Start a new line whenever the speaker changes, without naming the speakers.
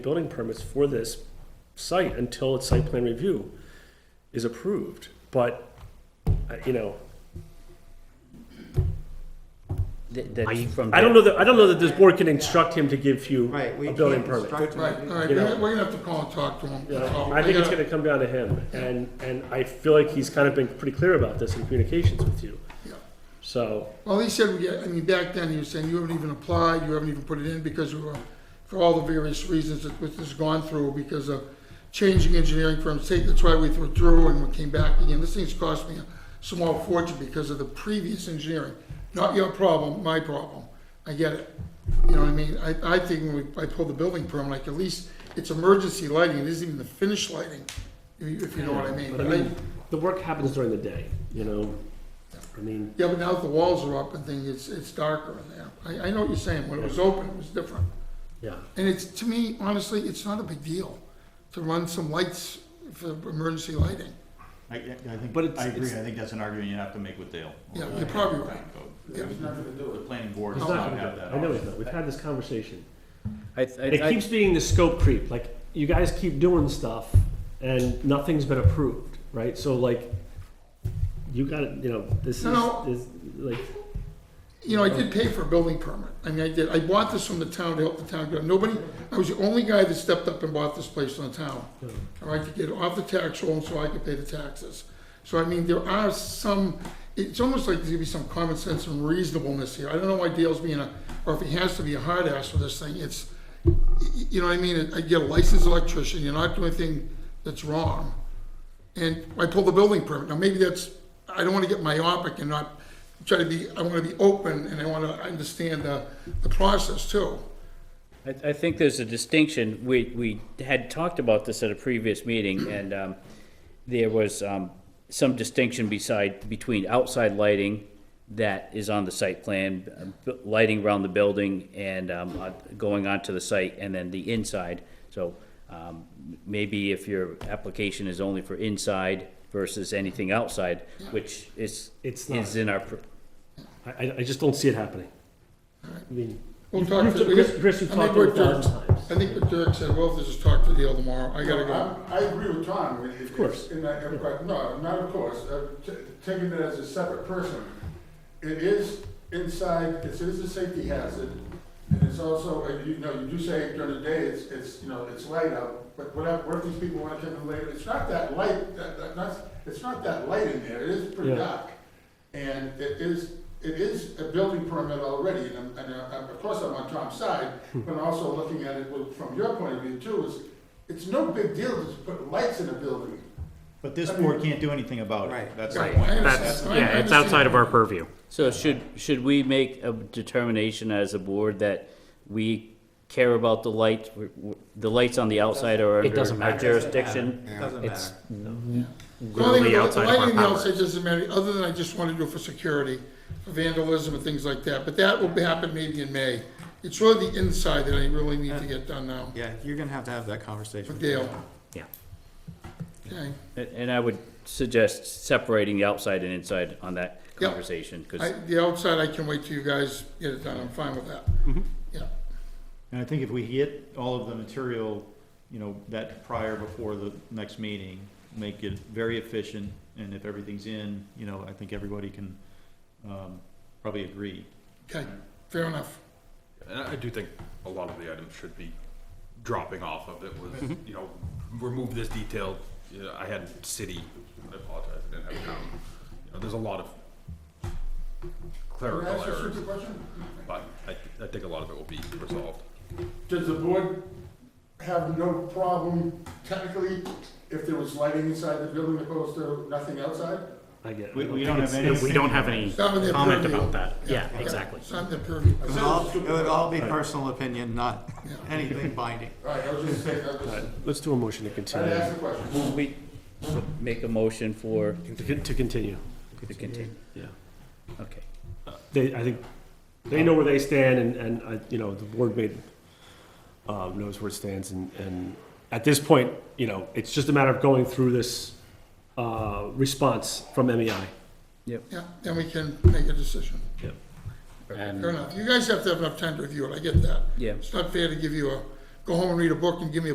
building permits for this site until its site plan review is approved, but, uh, you know,
That- That's from.
I don't know that, I don't know that this board can instruct him to give you
Right, we
a
can't
building permit.
instruct
Right, all right,
You
we're
know.
gonna- we're gonna have to call and talk to him.
You
That's all.
know, I think
We
it's
gotta-
gonna come down to him, and, and I feel like he's kind of been pretty clear about this in communications with you.
Yeah.
So,
Well, he said, we- I mean, back then, he was saying, you haven't even applied, you haven't even put it in, because we were, for all the various reasons that this has gone through, because of changing engineering firms, take, that's why we withdrew and we came back again. This thing's cost me a small fortune because of the previous engineering. Not your problem, my problem. I get it. You know what I mean? I, I think when we- I pull the building permit, like, at least it's emergency lighting, it isn't even the finished lighting, if you if you know what I mean.
but I mean, the work happens during the day, you know? I mean,
Yeah, but now that the walls are up and things, it's, it's darker in there. I, I know what you're saying, when it was open, it was different.
yeah.
And it's, to me, honestly, it's not a big deal to run some lights for emergency lighting.
I, I think,
But it's-
I agree, I
it's-
think that's an argument you have to make with Dale.
Yeah, you're probably right.
The planning board
He's
does
not
not
gonna
have
do
that.
it. I know he's not. We've had this conversation.
I, I,
And it
I-
keeps being the scope creep. Like, you guys keep doing stuff and nothing's been approved, right? So like, you gotta, you know, this is,
No.
is, like,
You know, I did pay for a building permit. I mean, I did, I bought this from the town to help the town get, nobody, I was the only guy that stepped up and bought this place in the town. All right, to get it off the tax roll so I could pay the taxes. So I mean, there are some, it's almost like there's gonna be some common sense and reasonableness here. I don't know why Dale's being a, or if he has to be a hard ass for this thing, it's, y- y- you know what I mean? I get a licensed electrician, you're not doing anything that's wrong. And I pull the building permit. Now, maybe that's, I don't wanna get myopic and not try to be, I wanna be open and I wanna understand the, the process too.
I, I think there's a distinction, we, we had talked about this at a previous meeting, and, um, there was, um, some distinction beside, between outside lighting that is on the site plan, uh, bu- lighting around the building and, um, uh, going onto the site, and then the inside. So, um, maybe if your application is only for inside versus anything outside, which is,
It's not.
is in our, pr-
I, I- I just don't see it happening. I mean,
We'll
you've-
talk
you've-
to- we
Chris,
got-
Chris, you've
I
talked
think
to
we're
it a thousand times.
I think what Derek said, well, if there's a talk to Dale tomorrow, I gotta go.
I I agree with Tom. Of
course.
And I, I've got- no, not of course, Uh, t- taking it as a separate person. It is inside, it is a safety hazard, and it's also, and you know, you do say during the day, it's, it's, you know, it's light out, but what if, what if these people wanna come in later? It's not that light, that, that, not, it's not that light in there, it is pretty
Yeah.
dark. And it is, it is a building permit already, and I'm, and I'm, of course, I'm on Tom's side, but also looking at it with- from your point of view too, is it's no big deal to put lights in a building.
But this board can't do anything about it,
Right.
that's the
Right.
point.
That's,
Yeah, it's outside of our purview.
So should, should we make a determination as a board that we care about the lights, the lights on the outside are
It doesn't
under our
matter.
jurisdiction?
Doesn't
It's,
matter.
Literally outside of our
Lighting the
power.
outside doesn't matter, other than I just wanna do it for security, for vandalism and things like that, but that will happen maybe in May. It's really the inside that I really need to get done now,
Yeah, you're gonna have to have that conversation.
with Dale,
Yeah.
okay?
and I would suggest separating the outside and inside on that
Yeah.
conversation,
I,
because
the outside, I can wait till you guys get it done, I'm fine with that.
Mm-hmm.
Yeah,
And I think if we get all of the material, you know, that prior before the next meeting, make it very efficient, and if everything's in, you know, I think everybody can, um, probably agree.
okay, fair enough.
And I I do think a lot of the items should be dropping off of it was, you know, remove this detail. You know, I had city, I apologize, I didn't have town. You know, there's a lot of
Can I
clerical
ask a
errors,
stupid question?
but I, I think a lot of it will be resolved.
Does the board have no problem technically if there was lighting inside the building opposed to nothing outside?
I get it.
We,
I don't
we
think
don't
it's-
have any.
We don't have any
It's not in their
comment
purview.
about that. Yeah, exactly.
It's not in their purview.
It would all, it would all be personal opinion, not anything binding.
All right, I was just saying, I was,
Let's do a motion to
I
continue,
asked a question.
we make a motion for,
to con- to continue,
to continue,
yeah.
okay.
They, I think, they know where they stand and, and, uh, you know, the board made, uh, knows where it stands and, and at this point, you know, it's just a matter of going through this, uh, response from E MEI.
Yeah, then we can make a decision.
And,
Fair enough. You guys have to have enough time to review it, I get that.
yeah,
It's not fair to give you a go home and read a book and give me a